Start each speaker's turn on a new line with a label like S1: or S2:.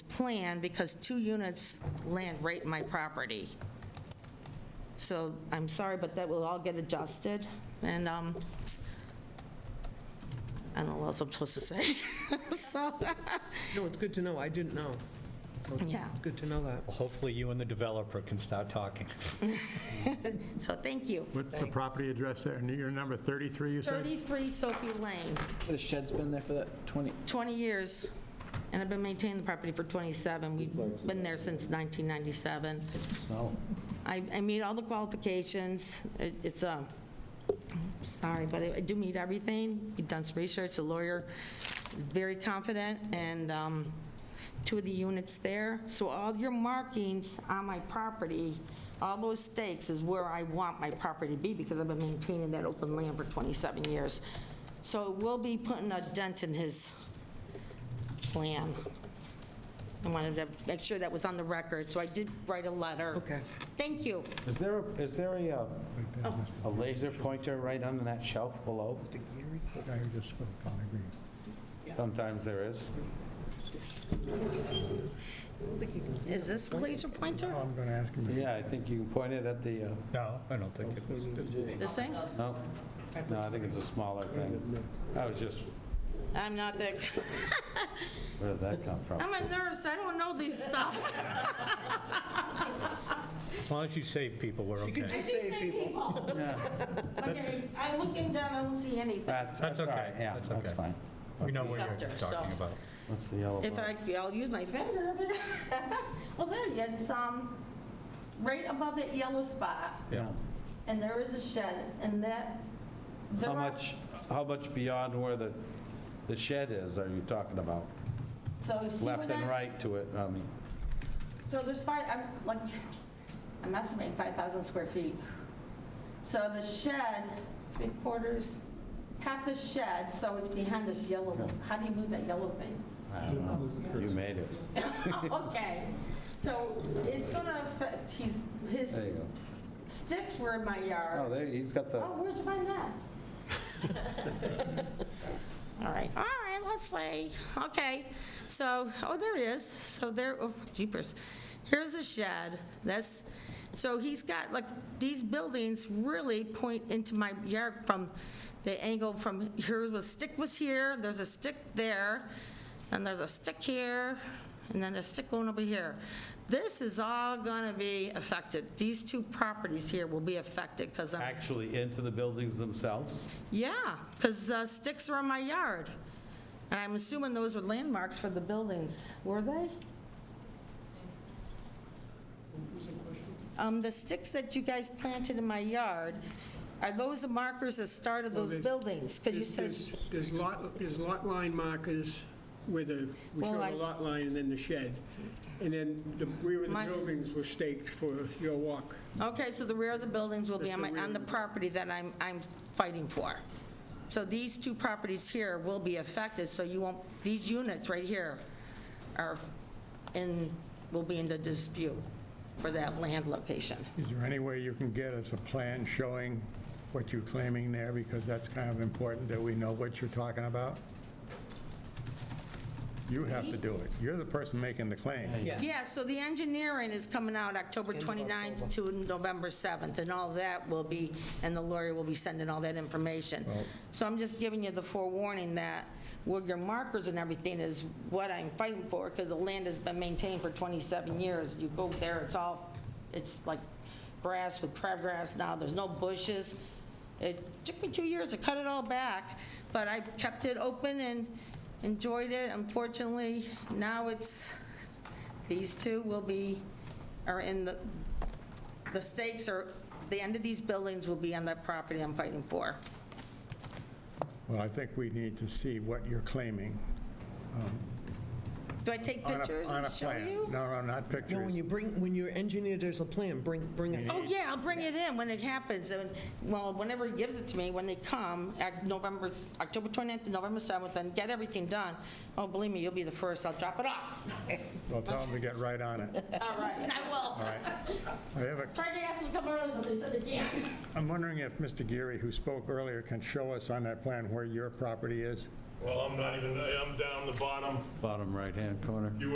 S1: plan because two units land right in my property. So I'm sorry, but that will all get adjusted, and um, I don't know what else I'm supposed to say. So,
S2: No, it's good to know, I didn't know.
S1: Yeah.
S2: It's good to know that.
S3: Hopefully, you and the developer can start talking.
S1: so thank you.
S4: What's the property address there? Your number 33, you said?
S1: 33 Sophie Lane,
S5: The shed's been there for that 20,
S1: 20 years, and I've been maintaining the property for 27. We've been there since 1997. I, I meet all the qualifications. It- It's um, a, sorry, but I do meet everything. We've done some research, the lawyer is very confident, and um, two of the units there. So all your markings on my property, all those stakes is where I want my property to be, because I've been maintaining that open land for 27 years. So we'll be putting a dent in his plan. I wanted to make sure that was on the record, so I did write a letter.
S2: Okay.
S1: Thank you.
S6: Is there, a- is there a, uh,
S1: Oh.
S6: a laser pointer right under that shelf below?
S4: The guy who just spoke, I agree.
S6: Sometimes there is.
S1: Is this laser pointer,
S4: I'm going to ask him. if-
S6: Yeah, I think you can point it at the, uh,
S3: No, I don't think it was.
S1: this thing?
S6: no, no, I think it's a smaller thing. I was just,
S1: I'm not the,
S6: where did that come from?
S1: I'm a nurse, I don't know these stuff.
S3: As long as you save people, we're okay.
S1: I just say people. Okay, I'm looking down, I don't see anything.
S6: That's,
S3: That's
S6: that's all
S3: okay,
S6: right, yeah,
S3: that's
S6: that's
S3: okay.
S6: fine.
S3: We know what
S1: Scepter,
S3: you're
S1: so-
S3: talking about.
S6: What's the yellow?
S1: If I, I'll use my finger. Well, there, you it's, um, right above that yellow spot,
S6: Yeah.
S1: and there is a shed, and that, there
S6: How
S1: are-
S6: much, how much beyond where the, the shed is are you talking about?
S1: so you see where
S6: Left and
S1: that's-
S6: right to it, I mean,
S1: So there's five, I'm like, I'm estimating 5,000 square feet. So the shed, three quarters, half the shed, so it's behind this yellow, how do you move that yellow thing?
S6: I don't know. You made it.
S1: Okay, so it's gonna affect, he's, his
S6: There you go.
S1: sticks were in my
S6: Oh,
S1: yard.
S6: there, he's got
S1: Oh,
S6: the,
S1: where'd you find that? All right, all right, let's see, okay, so, oh, there it is, so there, oh, jeepers, here's a shed, that's, so he's got, like, these buildings really point into my yard from the angle from, here was, stick was here, there's a stick there, and there's a stick here, and then a stick going over here. This is all gonna be affected, these two properties here will be affected, because I'm
S6: actually into the buildings themselves?
S1: yeah, because sticks are in my yard. And I'm assuming those were landmarks for the buildings, were they? Um, The sticks that you guys planted in my yard, are those the markers that started those
S7: there's-
S1: buildings? Because you said,
S7: There's- There's there's lot, there's lot line markers where the, we
S1: Well,
S7: show
S1: I-
S7: the lot line and then the shed. And then the rear of the
S1: My-
S7: buildings were staked for your walk.
S1: okay, so the rear of the buildings will be
S7: It's
S1: on
S7: the
S1: my, on the
S7: rear.
S1: property that I'm, I'm fighting for. So these two properties here will be affected, so you won't, these units right here are in, will be in the dispute for that land location.
S4: Is there any way you can get us a plan showing what you're claiming there? Because that's kind of important that we know what you're talking about. You have to do it. You're the person making the claim.
S1: Yeah, so the engineering is coming out October 29th to November 7th, and all that will be, and the lawyer will be sending all that information. So I'm just giving you the forewarning that, well, your markers and everything is what I'm fighting for, because the land has been maintained for 27 years. You go there, it's all, it's like grass with crabgrass now, there's no bushes. It took me two years to cut it all back, but I kept it open and enjoyed it. Unfortunately, now it's, these two will be, are in the, the stakes are, the end of these buildings will be on that property I'm fighting for.
S4: Well, I think we need to see what you're claiming.
S1: Do I take
S4: on a-
S1: pictures
S4: on
S1: and
S4: a
S1: show
S4: plan.
S1: you?
S4: No, no, not
S2: No, when
S4: pictures.
S2: you bring, when you're engineered, there's a plan, bring, bring us.
S1: Oh, yeah, I'll bring it in when it happens, and, well, whenever he gives it to me, when they come, at November, October 29th to November 7th, and get everything done. Oh, believe me, you'll be the first, I'll drop it off.
S4: Well, tell them to get right on it.
S1: All right, and I
S4: All
S1: will.
S4: right. I have a
S1: Tried to ask them to come early, but they said they can't.
S4: I'm wondering if Mr. Geary, who spoke earlier, can show us on that plan where your property is?
S8: Well, I'm not even, I'm down the bottom
S6: Bottom right-hand corner.